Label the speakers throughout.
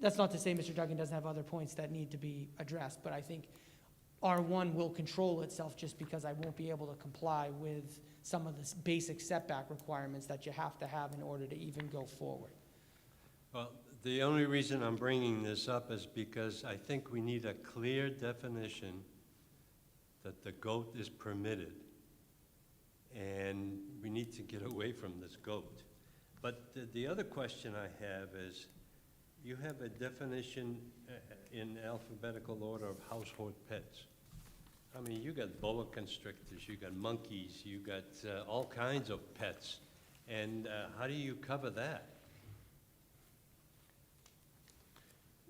Speaker 1: that's not to say Mr. Duggan doesn't have other points that need to be addressed, but I think R1 will control itself just because I won't be able to comply with some of the s- basic setback requirements that you have to have in order to even go forward.
Speaker 2: Well, the only reason I'm bringing this up is because I think we need a clear definition that the goat is permitted. And we need to get away from this goat. But the, the other question I have is, you have a definition uh, in alphabetical order of household pets. I mean, you got boa constrictors, you got monkeys, you got uh, all kinds of pets. And uh, how do you cover that?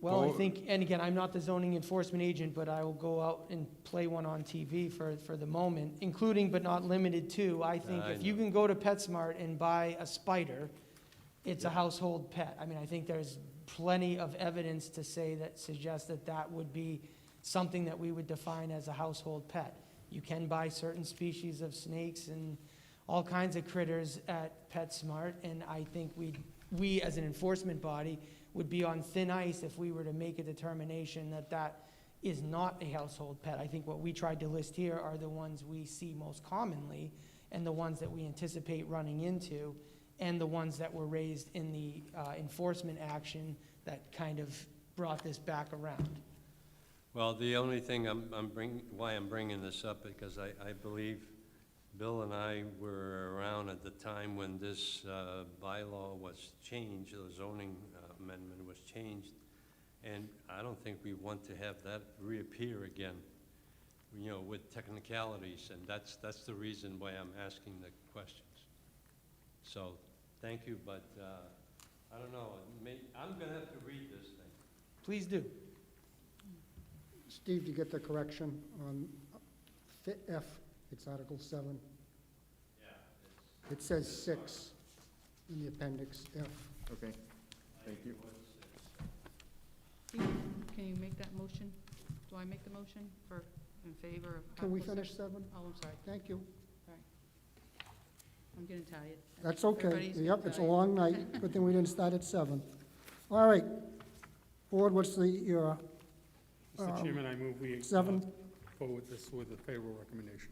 Speaker 1: Well, I
Speaker 3: Well-
Speaker 1: think, and again, I'm not the zoning enforcement agent, but I will go out and play one on TV for, for the moment, including but not limited to, I think
Speaker 2: I
Speaker 1: if you
Speaker 2: know.
Speaker 1: can go to PetSmart and buy a spider, it's a
Speaker 2: Yeah.
Speaker 1: household pet. I mean, I think there's plenty of evidence to say that, suggests that that would be something that we would define as a household pet. You can buy certain species of snakes and all kinds of critters at PetSmart, and I think we, we as an enforcement body would be on thin ice if we were to make a determination that that is not a household pet. I think what we tried to list here are the ones we see most commonly and the ones that we anticipate running into and the ones that were raised in the uh, enforcement action that kind of brought this back around.
Speaker 2: Well, the only thing I'm, I'm bring, why I'm bringing this up, because I, I believe Bill and I were around at the time when this, uh, bylaw was changed, the zoning uh, amendment was changed. And I don't think we want to have that reappear again, you know, with technicalities, and that's, that's the reason why I'm asking the questions. So, thank you, but, uh, I don't know, it may, I'm gonna have to read this thing.
Speaker 1: Please do.
Speaker 4: Steve, do you get the correction on fi- F, it's Article 7? It says 6 in the appendix, F.
Speaker 3: Okay, thank you.
Speaker 5: Steve, can you make that motion? Do I make the motion for, in favor of?
Speaker 4: Can we
Speaker 5: Article
Speaker 4: finish
Speaker 5: six?
Speaker 4: 7?
Speaker 5: Oh, I'm sorry,
Speaker 4: Thank you.
Speaker 5: I'm getting tired. I
Speaker 4: That's
Speaker 5: think
Speaker 4: okay.
Speaker 5: everybody's getting
Speaker 4: Yep, it's a
Speaker 5: tired.
Speaker 4: long night. Good thing we didn't start at 7. All right. Board, what's the, uh, your
Speaker 6: Mr.
Speaker 4: Um,
Speaker 6: Chairman, I move we uh,
Speaker 4: 7?
Speaker 6: go with this with a favorable recommendation.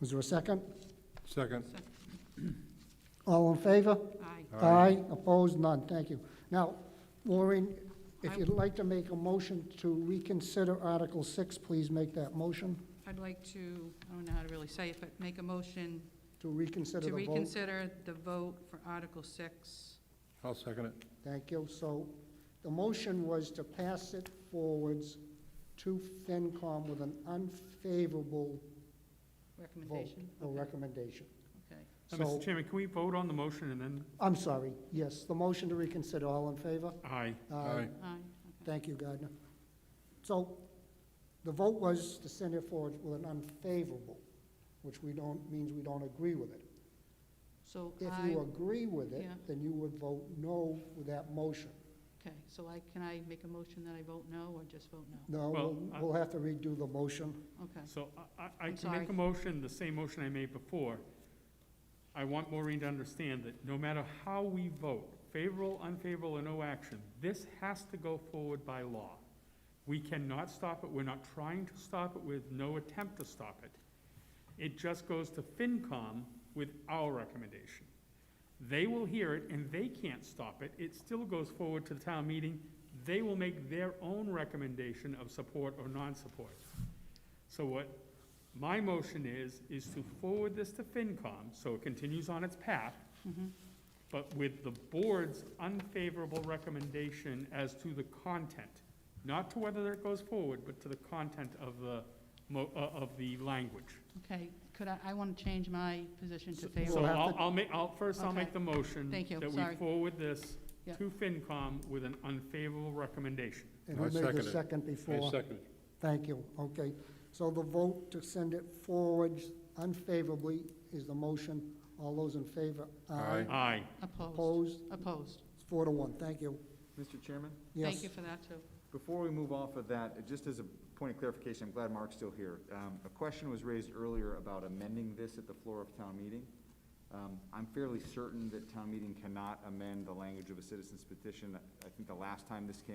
Speaker 4: Is there a second?
Speaker 3: Second.
Speaker 4: All in favor?
Speaker 5: Aye.
Speaker 3: Aye.
Speaker 4: Aye, opposed, none, thank you. Now, Maureen, if you'd like to make a motion to reconsider Article 6, please make that motion
Speaker 5: I'd like to, I don't know how to really say it, but make a motion
Speaker 4: to reconsider
Speaker 5: to
Speaker 4: the vote.
Speaker 5: reconsider the vote for Article Six.
Speaker 3: I'll second it.
Speaker 4: Thank you. So the motion was to pass it forwards to FinCom with an unfavorable vote Oh,
Speaker 5: Recommendation?
Speaker 4: or
Speaker 5: Okay.
Speaker 4: recommendation.
Speaker 5: Okay.
Speaker 6: Uh,
Speaker 4: So-
Speaker 6: Mr. Chairman, can we vote on the motion and then,
Speaker 4: I'm sorry, yes, the motion to reconsider, all in favor?
Speaker 6: aye,
Speaker 3: Aye.
Speaker 5: Aye. Okay.
Speaker 4: Thank you, Gardner. So the vote was to send it forward with an unfavorable, which we don't, means we don't agree with it.
Speaker 5: So
Speaker 4: If
Speaker 5: I,
Speaker 4: you agree with it,
Speaker 5: Yeah.
Speaker 4: then you would vote no with that motion.
Speaker 5: okay, so I, can I make a motion that I vote no or just vote no?
Speaker 4: No,
Speaker 6: Well,
Speaker 4: we'll,
Speaker 6: I-
Speaker 4: we'll have to redo the motion.
Speaker 5: Okay,
Speaker 6: so I- I, I
Speaker 5: I'm
Speaker 6: can make
Speaker 5: sorry.
Speaker 6: a motion, the same motion I made before. I want Maureen to understand that no matter how we vote, favorable, unfavorable, or no action, this has to go forward by law. We cannot stop it, we're not trying to stop it with no attempt to stop it. It just goes to FinCom with our recommendation. They will hear it and they can't stop it. It still goes forward to the town meeting. They will make their own recommendation of support or non-support. So what my motion is, is to forward this to FinCom, so it continues on its path,
Speaker 5: mhm,
Speaker 6: but with the board's unfavorable recommendation as to the content, not to whether it goes forward, but to the content of the, mo- uh, of the language.
Speaker 5: okay, could I, I want to change my position to
Speaker 6: So
Speaker 5: favor.
Speaker 6: so
Speaker 4: We'll have
Speaker 6: I'll,
Speaker 4: to-
Speaker 6: I'll make, I'll, first I'll make
Speaker 5: Okay.
Speaker 6: the motion.
Speaker 5: Thank you.
Speaker 6: That
Speaker 5: Sorry.
Speaker 6: we forward this
Speaker 5: Yeah.
Speaker 6: to FinCom with an unfavorable recommendation.
Speaker 4: And
Speaker 3: I
Speaker 4: who made the
Speaker 3: second it.
Speaker 4: second before? Thank you, okay. So the vote to send it forward unfavorably is the motion. All those in favor?
Speaker 3: Aye.
Speaker 6: Aye.
Speaker 5: Opposed,
Speaker 4: Opposed?
Speaker 5: opposed.
Speaker 4: It's four to one, thank you.
Speaker 3: Mr. Chairman,
Speaker 4: Yes.
Speaker 5: Thank you for that, too.
Speaker 3: before we move off of that, uh, just as a point of clarification, I'm glad Mark's still here. Um, A question was raised earlier about amending this at the floor of town meeting. Um, I'm fairly certain that town meeting cannot amend the language of a citizen's petition. I think the last time this came